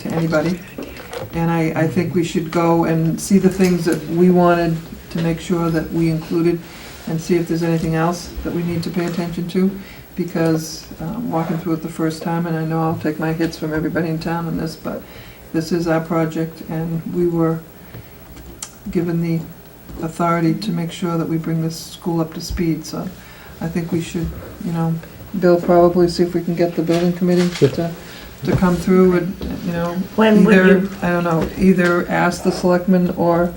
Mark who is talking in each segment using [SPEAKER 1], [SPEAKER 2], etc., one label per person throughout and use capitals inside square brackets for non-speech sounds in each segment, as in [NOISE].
[SPEAKER 1] to anybody. And I, I think we should go and see the things that we wanted to make sure that we included and see if there's anything else that we need to pay attention to, because um, walking through it the first time, and I know I'll take my hits from everybody in town on this, but this is our project, and we were given the authority to make sure that we bring this school up to speed, so I think we should, you know, Bill, probably see if we can get the building committee to, to come through and, you know,
[SPEAKER 2] When would
[SPEAKER 1] either,
[SPEAKER 2] you,
[SPEAKER 1] I don't know, either ask the selectmen or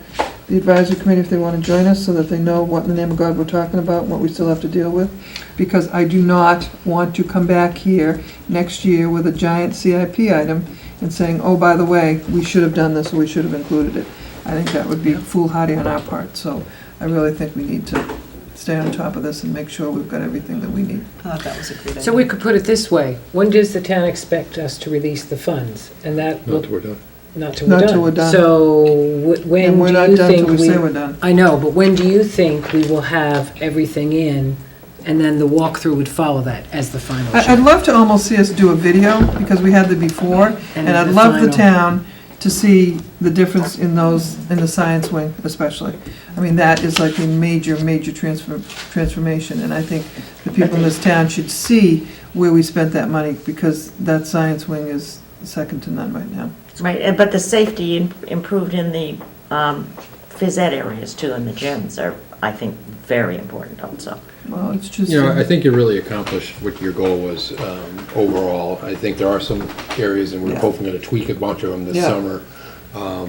[SPEAKER 1] the advisory committee if they want to join us, so that they know what in the name of God we're talking about, and what we still have to deal with. Because I do not want to come back here next year with a giant CIP item and saying, oh, by the way, we should have done this, or we should have included it. I think that would be foolhardy on our part, so I really think we need to stay on top of this and make sure we've got everything that we need.
[SPEAKER 3] I thought that was a good idea.
[SPEAKER 4] So we could put it this way, when does the town expect us to release the funds? And that,
[SPEAKER 5] Not
[SPEAKER 4] will
[SPEAKER 5] till we're done.
[SPEAKER 4] not till
[SPEAKER 1] Not till we're
[SPEAKER 4] we're
[SPEAKER 1] done.
[SPEAKER 4] done. So wh- when
[SPEAKER 1] And we're
[SPEAKER 4] do
[SPEAKER 1] not
[SPEAKER 4] you
[SPEAKER 1] done till
[SPEAKER 4] think
[SPEAKER 1] we say we're
[SPEAKER 4] we,
[SPEAKER 1] done.
[SPEAKER 4] I know, but when do you think we will have everything in? And then the walkthrough would follow that as the final
[SPEAKER 1] I- I'd
[SPEAKER 4] show?
[SPEAKER 1] love to almost see us do a video, because we had the before, and I'd
[SPEAKER 4] the
[SPEAKER 1] love the
[SPEAKER 4] final-
[SPEAKER 1] town to see the difference in those, in the science wing especially. I mean, that is like a major, major transfer, transformation, and I think the people in this town should see where we spent that money, because that science wing is second to none right now.
[SPEAKER 2] right, and- but the safety im- improved in the um, phys ed areas too, and the gyms are, I think, very important also.
[SPEAKER 1] Well, it's just,
[SPEAKER 5] You know, I
[SPEAKER 1] yeah,
[SPEAKER 5] think you really accomplished what your goal was um, overall. I think there are some areas, and we're
[SPEAKER 1] Yeah.
[SPEAKER 5] hoping to tweak a bunch of them this
[SPEAKER 1] Yeah.
[SPEAKER 5] summer. Um,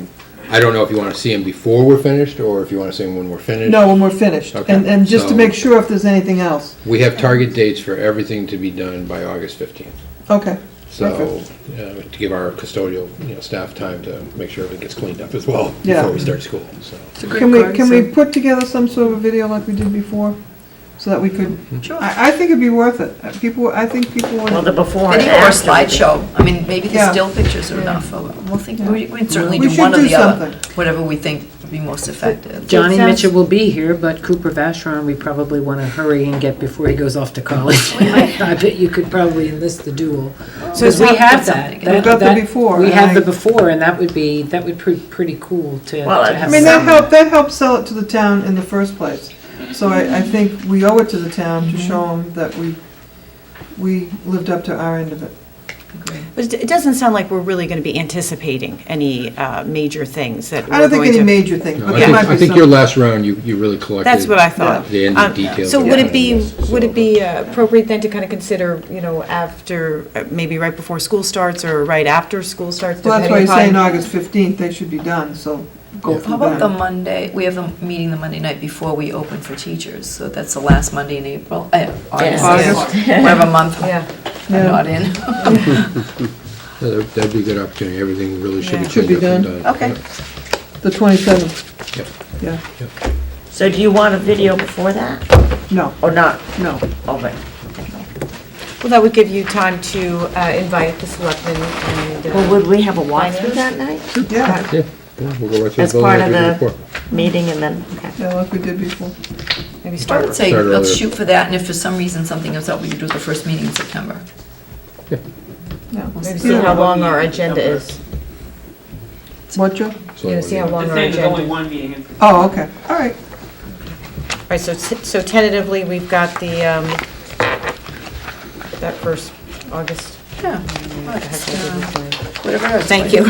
[SPEAKER 5] I don't know if you want to see them before we're finished, or if you want to see them when we're finished.
[SPEAKER 1] no, when we're finished,
[SPEAKER 5] Okay,
[SPEAKER 1] and, and just to
[SPEAKER 5] so-
[SPEAKER 1] make sure if there's anything else.
[SPEAKER 5] We have target dates for everything to be done by August 15th.
[SPEAKER 1] Okay,
[SPEAKER 5] So, uh, to give our custodial, you know, staff time to make sure everything gets cleaned up as well
[SPEAKER 1] Yeah.
[SPEAKER 5] before we start school, so.
[SPEAKER 1] can we, can we put together some sort of video like we did before, so that we could
[SPEAKER 3] Sure.
[SPEAKER 1] I, I think it'd be worth it. Uh, People, I think people
[SPEAKER 2] Well, the
[SPEAKER 1] would,
[SPEAKER 2] before and
[SPEAKER 3] Video or
[SPEAKER 2] after. would be-
[SPEAKER 3] slideshow, I mean, maybe
[SPEAKER 1] Yeah.
[SPEAKER 3] the still pictures are enough, we'll think, we we can certainly
[SPEAKER 1] We
[SPEAKER 3] do
[SPEAKER 1] should
[SPEAKER 3] one or
[SPEAKER 1] do
[SPEAKER 3] the other,
[SPEAKER 1] something.
[SPEAKER 3] whatever we think would be most effective.
[SPEAKER 4] Johnny
[SPEAKER 6] It sounds-
[SPEAKER 4] Mitchell will be here, but Cooper Vashron, we probably want to hurry and get before he goes off to college. [LAUGHS] I bet you could probably enlist the duel.
[SPEAKER 6] So
[SPEAKER 4] Because we
[SPEAKER 6] it's not-
[SPEAKER 4] have
[SPEAKER 3] that's
[SPEAKER 4] that.
[SPEAKER 3] something.
[SPEAKER 4] That-
[SPEAKER 1] We've got the
[SPEAKER 4] that-
[SPEAKER 1] before,
[SPEAKER 4] We
[SPEAKER 1] and
[SPEAKER 4] have the
[SPEAKER 1] I-
[SPEAKER 4] before, and that would be, that would be pretty cool to to
[SPEAKER 2] Well, I
[SPEAKER 4] have.
[SPEAKER 1] I mean,
[SPEAKER 4] some-
[SPEAKER 1] that helped, that helped sell it to the town in the first place. So I, I think we owe it to the town to
[SPEAKER 6] Mm-hmm.
[SPEAKER 1] show them that we, we lived up to our end of it.
[SPEAKER 6] But it- it doesn't sound like we're really going to be anticipating any uh, major things that
[SPEAKER 1] I
[SPEAKER 6] we're
[SPEAKER 1] don't think
[SPEAKER 6] going
[SPEAKER 1] any
[SPEAKER 6] to.
[SPEAKER 1] major things,
[SPEAKER 5] No,
[SPEAKER 1] but
[SPEAKER 5] I
[SPEAKER 1] there
[SPEAKER 5] think,
[SPEAKER 1] might
[SPEAKER 5] I
[SPEAKER 1] be
[SPEAKER 5] think your
[SPEAKER 1] some.
[SPEAKER 5] last round, you, you really collected.
[SPEAKER 6] That's what I thought.
[SPEAKER 5] The end of
[SPEAKER 6] Um,
[SPEAKER 5] details.
[SPEAKER 6] So
[SPEAKER 5] of
[SPEAKER 6] would
[SPEAKER 5] the
[SPEAKER 6] it be,
[SPEAKER 5] plans,
[SPEAKER 6] would
[SPEAKER 5] so-
[SPEAKER 6] it be uh, appropriate then to kind of consider, you know, after, uh, maybe right before school starts or right after school starts?
[SPEAKER 1] Well, that's why
[SPEAKER 6] depending
[SPEAKER 1] you're saying
[SPEAKER 6] upon-
[SPEAKER 1] August fifteenth, they should be done, so go
[SPEAKER 5] Yeah.
[SPEAKER 3] How
[SPEAKER 1] through
[SPEAKER 3] about the
[SPEAKER 1] them.
[SPEAKER 3] Monday, we have the meeting the Monday night before we open for teachers, so that's the last Monday in April, eh, August.
[SPEAKER 1] August.
[SPEAKER 3] [LAUGHS] Whatever month I'm
[SPEAKER 6] Yeah,
[SPEAKER 3] not in. [LAUGHS]
[SPEAKER 5] Yeah, That'd that'd be a good opportunity. Everything really should be
[SPEAKER 1] Should
[SPEAKER 5] cleaned
[SPEAKER 1] be
[SPEAKER 5] up and
[SPEAKER 1] done.
[SPEAKER 5] done.
[SPEAKER 3] Okay.
[SPEAKER 1] The twenty-seventh,
[SPEAKER 5] Yep.
[SPEAKER 1] yeah,
[SPEAKER 2] So do you want a video before that,
[SPEAKER 1] no,
[SPEAKER 2] or not? Oh,
[SPEAKER 1] no.
[SPEAKER 2] Okay.
[SPEAKER 6] well, that would give you time to uh, invite the selectmen and. uh,
[SPEAKER 2] Well, would we have a walkthrough
[SPEAKER 6] Finance?
[SPEAKER 2] that night?
[SPEAKER 1] Yeah,
[SPEAKER 5] Yeah, yeah, we'll go right through
[SPEAKER 2] As
[SPEAKER 5] the building
[SPEAKER 2] part
[SPEAKER 5] like
[SPEAKER 2] of
[SPEAKER 5] we did
[SPEAKER 2] the
[SPEAKER 5] before.
[SPEAKER 2] meeting and then, okay.
[SPEAKER 1] yeah, like we did before.
[SPEAKER 6] Maybe
[SPEAKER 3] I
[SPEAKER 6] start
[SPEAKER 3] would say
[SPEAKER 5] Start
[SPEAKER 3] let's
[SPEAKER 5] earlier.
[SPEAKER 3] shoot for that, and if for some reason something comes up, we could do it the first meeting in September.
[SPEAKER 1] Yeah.
[SPEAKER 6] Maybe see how long our agenda is.
[SPEAKER 1] What, Joe?
[SPEAKER 5] So
[SPEAKER 6] You know, see how
[SPEAKER 5] yeah.
[SPEAKER 6] long
[SPEAKER 7] The
[SPEAKER 6] our
[SPEAKER 7] thing is only
[SPEAKER 6] agenda.
[SPEAKER 7] one meeting in
[SPEAKER 1] Oh, okay, all right.
[SPEAKER 6] All right, so t- so tentatively, we've got the, um, that first August.
[SPEAKER 3] Yeah.
[SPEAKER 6] I have to do this one.
[SPEAKER 3] Whatever.
[SPEAKER 6] Thank you.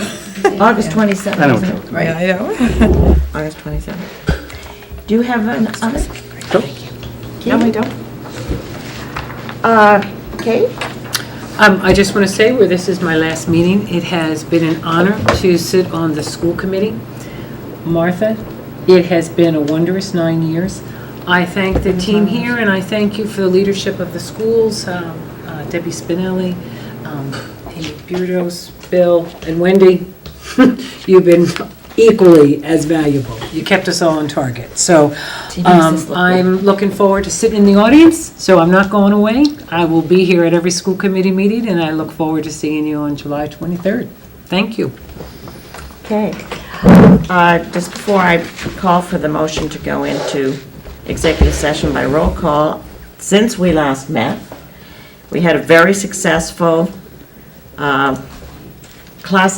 [SPEAKER 2] August 27th, isn't it?
[SPEAKER 3] Right.
[SPEAKER 6] I know. [LAUGHS] August 27th.
[SPEAKER 2] Do you have an other?
[SPEAKER 6] No, I don't.
[SPEAKER 2] Uh, Kate?
[SPEAKER 4] Um, I just want to say where this is my last meeting, it has been an honor to sit on the school committee. Martha, it has been a wondrous nine years. I thank the team here, and I thank you for the leadership of the schools, um, uh, Debbie Spinelli, um, Amy Burdos, Bill, and Wendy. [LAUGHS] You've been equally as valuable. You kept us all on target. So um, I'm looking forward to sitting in the audience, so I'm not going away. I will be here at every school committee meeting, and I look forward to seeing you on July 23rd. Thank you.
[SPEAKER 2] Okay. Uh, Just before I call for the motion to go into executive session by roll call, since we last met, we had a very successful uh, class